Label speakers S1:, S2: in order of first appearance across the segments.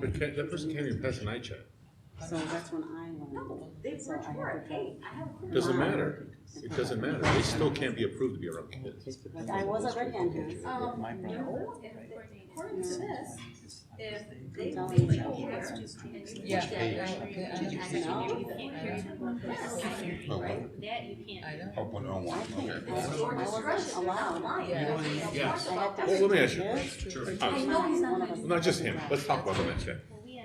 S1: But can't- that person can't even pass an eye check.
S2: So that's when I learned.
S3: No, they've
S2: So I
S3: worked
S2: have
S3: hard,
S2: to
S3: hey,
S2: go.
S3: I have. a Um, career.
S1: Doesn't matter. It doesn't matter. They still can't be approved to be around kids.
S2: But I was already on his.
S3: Um,
S4: My
S3: no,
S4: problem,
S3: if,
S4: right?
S3: according to this, if they
S2: Don't
S3: think
S2: you
S3: you
S2: know?
S3: care and you.
S5: Yeah.
S3: think that
S5: Did you
S3: know?
S2: see
S3: Yes, right, that you
S2: it?
S3: can't.
S2: I can't,
S5: I know.
S3: That's
S2: I
S3: your
S2: I wasn't
S3: discretion, that's
S2: allowed.
S3: mine.
S5: Yeah.
S1: Yes.
S2: I had to-
S1: Well, let me ask you a
S2: Yes.
S1: question. Sure.
S3: I know he's not gonna-
S1: Not just him. Let's talk about him actually.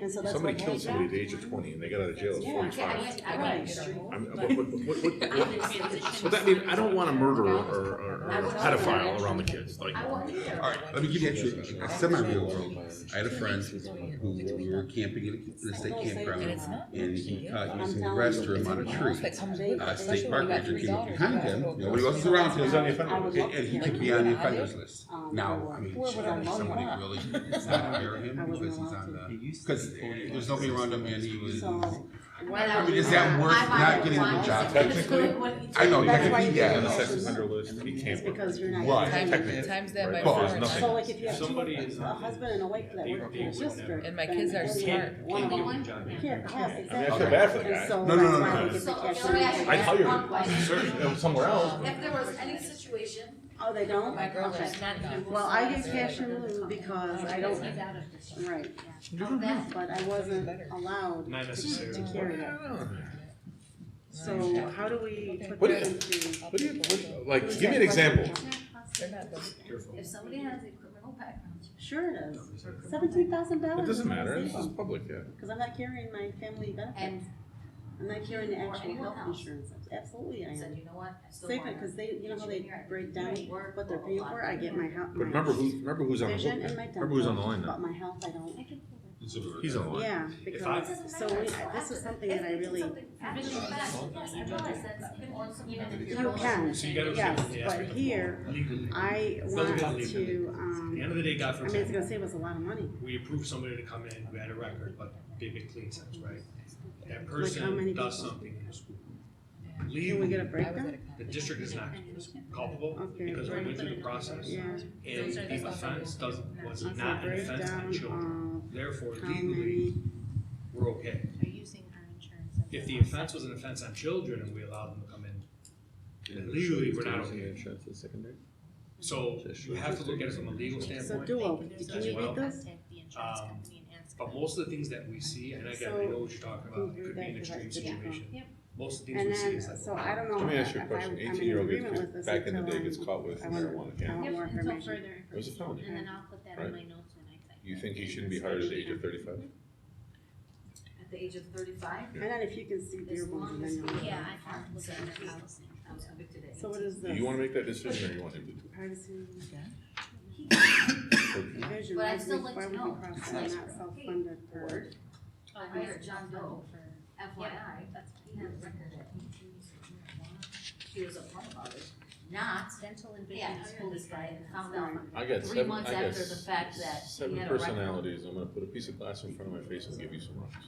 S2: And so that's
S1: Somebody
S2: what
S1: killed
S2: they-
S1: somebody at the age of twenty and they got out of jail at
S2: Yeah.
S3: Yeah, I
S1: forty-five.
S3: went, I
S2: Right.
S3: went. through,
S1: I mean,
S3: but-
S1: what, what, what, what,
S3: I
S1: what-
S3: didn't transition.
S1: but that means, I don't want a murderer or, or, or a pedophile around the kids, like.
S3: I won't either.
S6: All right, let me give you actually a semi-real world. I had a friend who, we were camping in a- in a state
S5: And
S6: campground,
S5: it's not.
S6: and he caught using the
S2: I'm
S6: restroom on a tree. Uh, state park ranger came up behind him, nobody else was
S5: was
S6: around him,
S1: He's on the
S6: and,
S1: offender
S2: I would
S1: list.
S2: love to
S6: and he
S2: hear.
S6: could be on the offenders list.
S2: um,
S6: Now, I mean,
S5: Where
S6: should
S5: would I look
S6: somebody
S5: up?
S6: really not hire him because he's on the, because there's nobody around him and he was,
S2: So.
S3: When
S6: I mean, is that worth
S3: I
S6: not getting a
S3: wanted
S6: good job?
S3: one,
S6: Technically,
S3: when-
S6: I
S1: On
S2: That's why you
S6: know, technically,
S1: the
S6: yeah.
S2: can't-
S1: sex offender list, he
S2: It's
S1: can't.
S2: because you're not.
S6: Right.
S2: getting-
S1: Technically,
S5: Times that by
S1: right?
S6: four.
S5: four.
S6: There's
S2: So like if you have two,
S7: Somebody is
S2: a
S7: not-
S2: husband and a wife that work
S7: They-
S2: in
S7: they
S2: a
S7: would never-
S2: district.
S7: And
S5: my
S2: then
S5: kids are
S2: one of
S5: smart.
S2: them- One of
S3: Only
S2: them
S3: one job now.
S2: can't pass,
S1: I mean, I
S2: exactly.
S1: feel bad for the
S2: And
S1: guy.
S2: so
S6: No, no,
S2: that's
S6: no,
S2: why we
S6: no, no.
S2: get the
S3: So,
S2: cash
S3: let me ask you
S2: out.
S1: I'd
S3: guys
S1: hire you.
S3: one question.
S1: Certainly, somewhere else.
S3: If there was any situation.
S2: Oh, they don't?
S5: My brother's
S2: Okay.
S5: not even-
S2: Well, I get cash in lieu because I don't,
S3: He's out of district.
S2: right,
S3: Oh, that's-
S2: but I wasn't allowed
S7: Not
S2: to to
S7: necessarily.
S2: carry it. So how do we put
S1: What
S2: that
S1: is-
S2: into?
S1: What do you, what do you- like, give me an example.
S3: If somebody has a criminal background.
S2: Sure it is. Seventeen thousand dollars.
S1: It doesn't matter, this is public, yeah.
S2: Because I'm not carrying my family benefits.
S3: And-
S2: I'm not carrying the
S3: Or
S2: actual
S3: anyone
S2: health
S3: else.
S2: insurance. Absolutely I am.
S3: Said, you know what? I still
S2: Save
S3: wanna-
S2: it, cause they, you know how they break down
S3: Work,
S2: what they're
S3: blah,
S2: paying
S3: blah,
S2: for,
S3: blah.
S2: I get my house.
S1: But remember who, remember who's on the hook,
S2: Vision and my dental.
S1: remember who's on the line
S2: But
S1: now.
S2: my health, I don't,
S1: He's on the line.
S2: yeah, because, so we, I- this is something that I really, you can,
S7: So you gotta
S2: yes,
S7: look at the
S2: but
S7: aspect of
S2: here,
S7: Legally, at
S2: I want to,
S7: the
S2: um,
S7: end of the day, God
S2: I mean, it's
S7: forbid,
S2: gonna save us a lot of money.
S7: we approve somebody to come in who had a record, but they've been clean since, right? That
S2: many
S7: person does
S2: people?
S7: something in the school.
S2: Can we get a
S7: Legally,
S2: breakdown?
S7: the district is not culpable
S2: Okay.
S7: because we went through the process
S2: Yeah,
S7: and the offense doesn't, was
S2: let's
S7: not
S2: a
S7: an offense on children.
S2: breakdown
S7: Therefore
S2: of how
S7: legally,
S2: many,
S7: we're okay. If the offense was an offense on children and we allowed them to come in, legally, we're not okay. So you have to look at it from a legal
S2: so
S7: standpoint.
S2: Duo, can you
S7: Well,
S2: read this?
S7: Um, But most of the things that we see, and again, I know what you're talking about, could be an extreme situation. Most of the things
S2: And
S7: we see
S2: then,
S7: is like.
S2: so I don't know.
S1: Let me ask you a
S2: if I-
S1: question,
S2: I'm in
S1: eighteen-year-old
S2: agreement with
S1: gets,
S2: this
S1: back in the
S2: until
S1: day,
S2: I'm-
S1: gets caught with
S2: I wanna-
S1: marijuana, yeah.
S2: I want more information.
S1: It was a felony.
S3: And then I'll put that in my notes when I type.
S1: You think he shouldn't be hired at the age of thirty-five?
S3: At the age of thirty-five?
S2: And then if you can see
S3: As
S2: Dearborn,
S3: long
S2: then
S3: as,
S2: you'll.
S3: yeah, I have to look at their policy. I was convicted at
S2: So what is
S1: Do
S2: this?
S1: you wanna make that decision or you want him to do
S2: Privacy
S1: it?
S2: vision,
S3: But I'd
S2: why
S3: still
S2: would we,
S3: like
S2: why
S3: to
S2: would we
S3: know.
S2: cross that out, self-funded for?
S3: I hired John Doe Oh, for FYI, he had a record at eighteen years of marijuana. He was upfront about it, not,
S8: Dental and
S3: yeah,
S8: vision
S3: I
S8: school
S3: told this
S8: is
S3: guy and found out.
S1: I got
S3: Three
S1: seven,
S3: months
S1: I got
S3: after the fact that he
S1: seven
S3: had a record.
S1: personalities, I'm gonna put a piece of glass in front of my face and give you some rocks.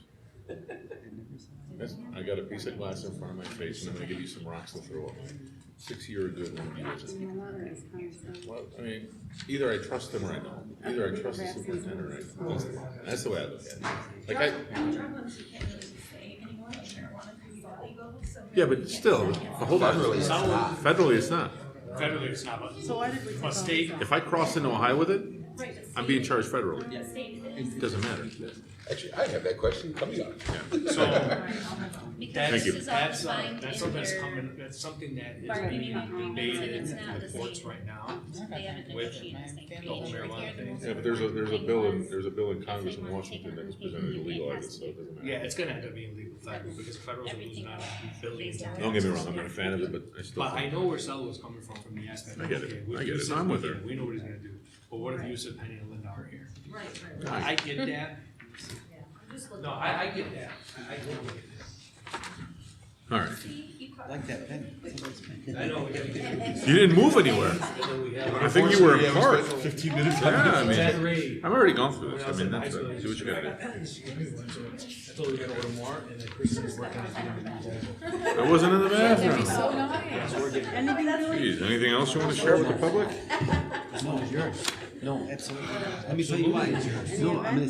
S1: That's, I got a piece of glass in front of my face and I'm gonna give you some rocks to throw at me. Six-year good one,
S2: I mean, the letter is kind of so-
S1: Well, I mean, either I trust them or I don't. Either I trust the superintendent or I don't. That's the way I look at it. Like I. Yeah, but still, hold on. Federally, it's not.
S7: Federally, it's not, but
S2: So why did we? take all this
S7: state-
S2: out?
S1: If I cross into Ohio with it, I'm being charged federally. It doesn't matter.
S6: Actually, I have that question coming up.
S7: so that's,
S1: you.
S7: that's, uh, that's something that's coming, that's something that is being debated in the courts right now. The whole marijuana thing.
S1: Yeah, but there's a, there's a bill in, there's a bill in Congress in Washington that was presented illegal, I guess, so it doesn't matter.
S7: Yeah, it's gonna end up being legal federal because federals are losing out on billions. in
S1: Don't get me
S7: taxes.
S1: wrong, I'm not a fan of it, but I still.
S7: But I know where Sal was coming from, from the aspect. of,
S1: I get it.
S7: okay, with
S1: I get it.
S7: Yusuf,
S1: No, I'm with
S7: we
S1: her.
S7: can- We know what he's gonna do, but what if Yusuf, Penny, and Linda are here?
S3: Right, right, right.
S7: I get that,
S3: I'm just looking.
S7: no, I, I get that, I, I totally get
S1: All right.
S3: See, you caught-
S4: Like that pen. Somebody's
S7: that.
S4: pen.
S7: I know, we gotta get.
S1: You didn't move anywhere. I think you were in
S6: Unfortunately,
S1: court.
S6: it was
S1: Fifteen minutes. Yeah, I mean,
S7: Exaggerate.
S1: I've already gone through this. I mean, that's, it. do what you gotta
S7: I told her we gotta order more, and then Chris is working on it.
S1: do. I wasn't in the bathroom.
S7: Yeah, so we're getting.
S2: Anything really?
S1: Geez, anything else you wanna share with the public?
S4: No, it's yours. No, absolutely. Let me tell you why it's yours. No, I'm gonna